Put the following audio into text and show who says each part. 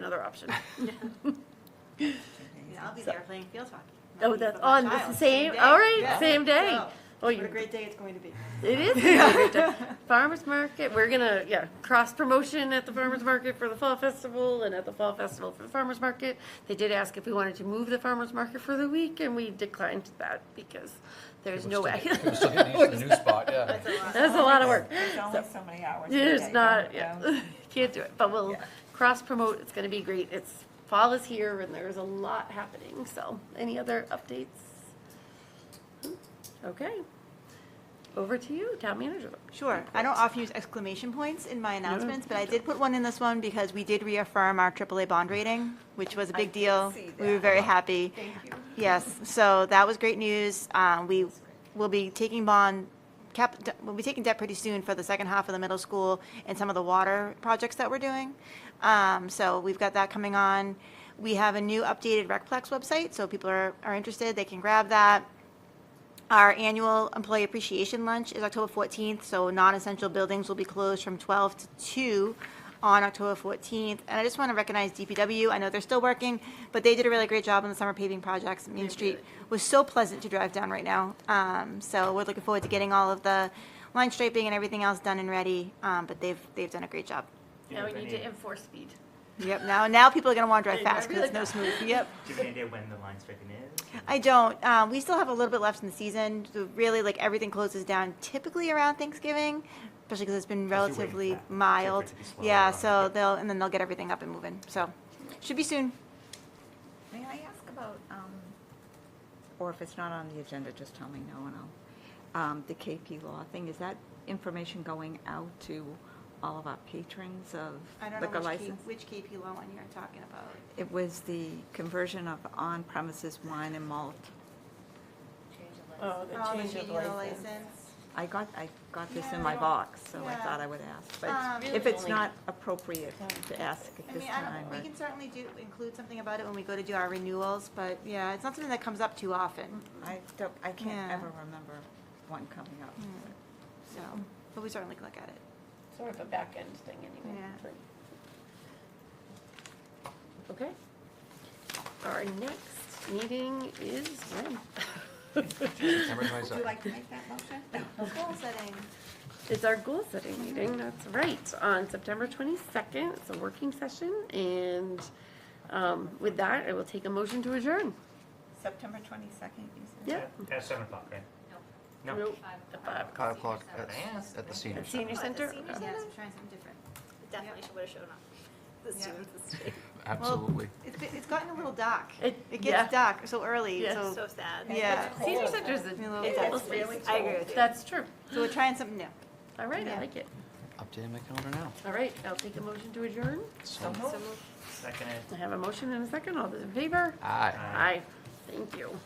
Speaker 1: another option.
Speaker 2: Yeah, I'll be there playing field hockey.
Speaker 1: Oh, that's on
Speaker 2: the
Speaker 1: the same, all right, same day. Oh,
Speaker 2: What a
Speaker 1: you,
Speaker 2: great day it's going to be.
Speaker 1: it is. a great day. Farmers market, we're gonna, yeah, cross promotion at the farmers market for the fall festival and at the fall festival for the farmers market. They did ask if we wanted to move the farmers market for the week and we declined that because there's no way.
Speaker 3: We're still getting used to the new spot, yeah.
Speaker 1: That's a lot of work.
Speaker 4: There's only so many hours. in a
Speaker 1: There's
Speaker 4: day,
Speaker 1: not,
Speaker 4: don't
Speaker 1: yeah,
Speaker 4: know.
Speaker 1: can't do it, but we'll cross promote, it's gonna be great, it's, fall is here and there's a lot happening, so, any other updates? Hmm, Okay, over to you, town manager.
Speaker 2: Sure. I don't often use exclamation points in my announcements, but I did put one in this one because we did reaffirm our AAA bond rating, which was a big deal.
Speaker 4: see
Speaker 2: We were
Speaker 4: that.
Speaker 2: very happy. Yes, so that was great news. Uh, We will be taking bond, cap, we'll be taking debt pretty soon for the second half of the middle school and some of the water projects that we're doing. Um, So we've got that coming on. We have a new updated Recplex website, so if people are, are interested, they can grab that. Our annual employee appreciation lunch is October 14th, so non-essential buildings will be closed from 12 to 2 on October 14th. And I just want to recognize DPW. I know they're still working, but they did a really great job on the summer paving projects. Main Street was so pleasant to drive down right now. Um, So we're looking forward to getting all of the line striping and everything else done and ready, um, but they've, they've done a great job.
Speaker 5: Do you
Speaker 1: Now we
Speaker 5: have
Speaker 1: need
Speaker 5: any,
Speaker 1: to enforce speed.
Speaker 2: Yep, now, now people are going to want to drive
Speaker 1: Yeah,
Speaker 2: fast because it's no smooth. Yep.
Speaker 5: do you have any idea when the line striping is?
Speaker 2: I don't. Um, we still have a little bit left in the season. So really, like everything closes down typically around Thanksgiving, especially because it's been
Speaker 5: you're waiting for
Speaker 2: relatively
Speaker 5: that. So
Speaker 2: mild.
Speaker 5: for it to be slower
Speaker 2: yeah,
Speaker 5: on-
Speaker 2: so they'll and then they'll get everything up and moving. So should be soon.
Speaker 4: May I ask about, um, or if it's not on the agenda, just tell me now and I'll, um, the KP Law thing, is that information going out to all of our patrons of liquor license?
Speaker 2: which KP law one you're talking about.
Speaker 4: It was the conversion of on-premises wine and malt.
Speaker 1: Oh,
Speaker 2: Oh, the liquor license.
Speaker 4: I got, I got this in
Speaker 2: Yeah, I
Speaker 4: my
Speaker 2: don't-
Speaker 4: box, so I
Speaker 2: yeah.
Speaker 4: thought I would ask.
Speaker 2: Um,
Speaker 4: But
Speaker 1: Really
Speaker 4: if it's
Speaker 1: only-
Speaker 4: not appropriate to ask at
Speaker 2: I
Speaker 4: this
Speaker 2: mean, I
Speaker 4: time,
Speaker 2: don't, we
Speaker 4: I-
Speaker 2: can certainly do, include something about it when we go to do our renewals, but yeah, it's not something that comes up too often,
Speaker 4: I don't, I can't
Speaker 2: Yeah. Hmm.
Speaker 4: ever remember one coming up.
Speaker 2: so, but we certainly can look at it.
Speaker 1: Sort of a back end thing anyway.
Speaker 2: Yeah.
Speaker 1: Okay. Our next meeting is when?
Speaker 3: September 22nd.
Speaker 4: like to make that motion?
Speaker 2: Goal setting.
Speaker 1: It's our goal setting meeting, that's right, on September 22nd. It's a working session, and um, with that, I will take a motion to adjourn.
Speaker 4: September 22nd, you said?
Speaker 1: Yeah.
Speaker 5: At seven o'clock, right? No.
Speaker 1: Nope. At five o'clock.
Speaker 3: Five o'clock at, at the senior
Speaker 1: At
Speaker 3: center.
Speaker 1: senior center? Uh,
Speaker 2: Yes, we're trying something different.
Speaker 6: Definitely should have shown up. This
Speaker 2: Yeah.
Speaker 6: year, this year.
Speaker 3: Absolutely.
Speaker 2: It's, been- it's gotten a little dark.
Speaker 1: It-
Speaker 2: It
Speaker 1: yeah.
Speaker 2: gets dark so early,
Speaker 1: Yes.
Speaker 2: so,
Speaker 6: So sad.
Speaker 2: yeah.
Speaker 1: Senior center is a,
Speaker 2: Me a little
Speaker 1: it's
Speaker 2: bit.
Speaker 1: a space.
Speaker 6: I agree with you.
Speaker 1: That's true.
Speaker 2: So we're trying something new.
Speaker 1: All right, I
Speaker 2: Yeah.
Speaker 1: like it.
Speaker 3: Updating my calendar now.
Speaker 1: All right, I'll take a motion to adjourn.
Speaker 3: So,
Speaker 5: Second.
Speaker 1: I have a motion and a second. All those in favor?
Speaker 3: aye.
Speaker 1: Aye. Thank you.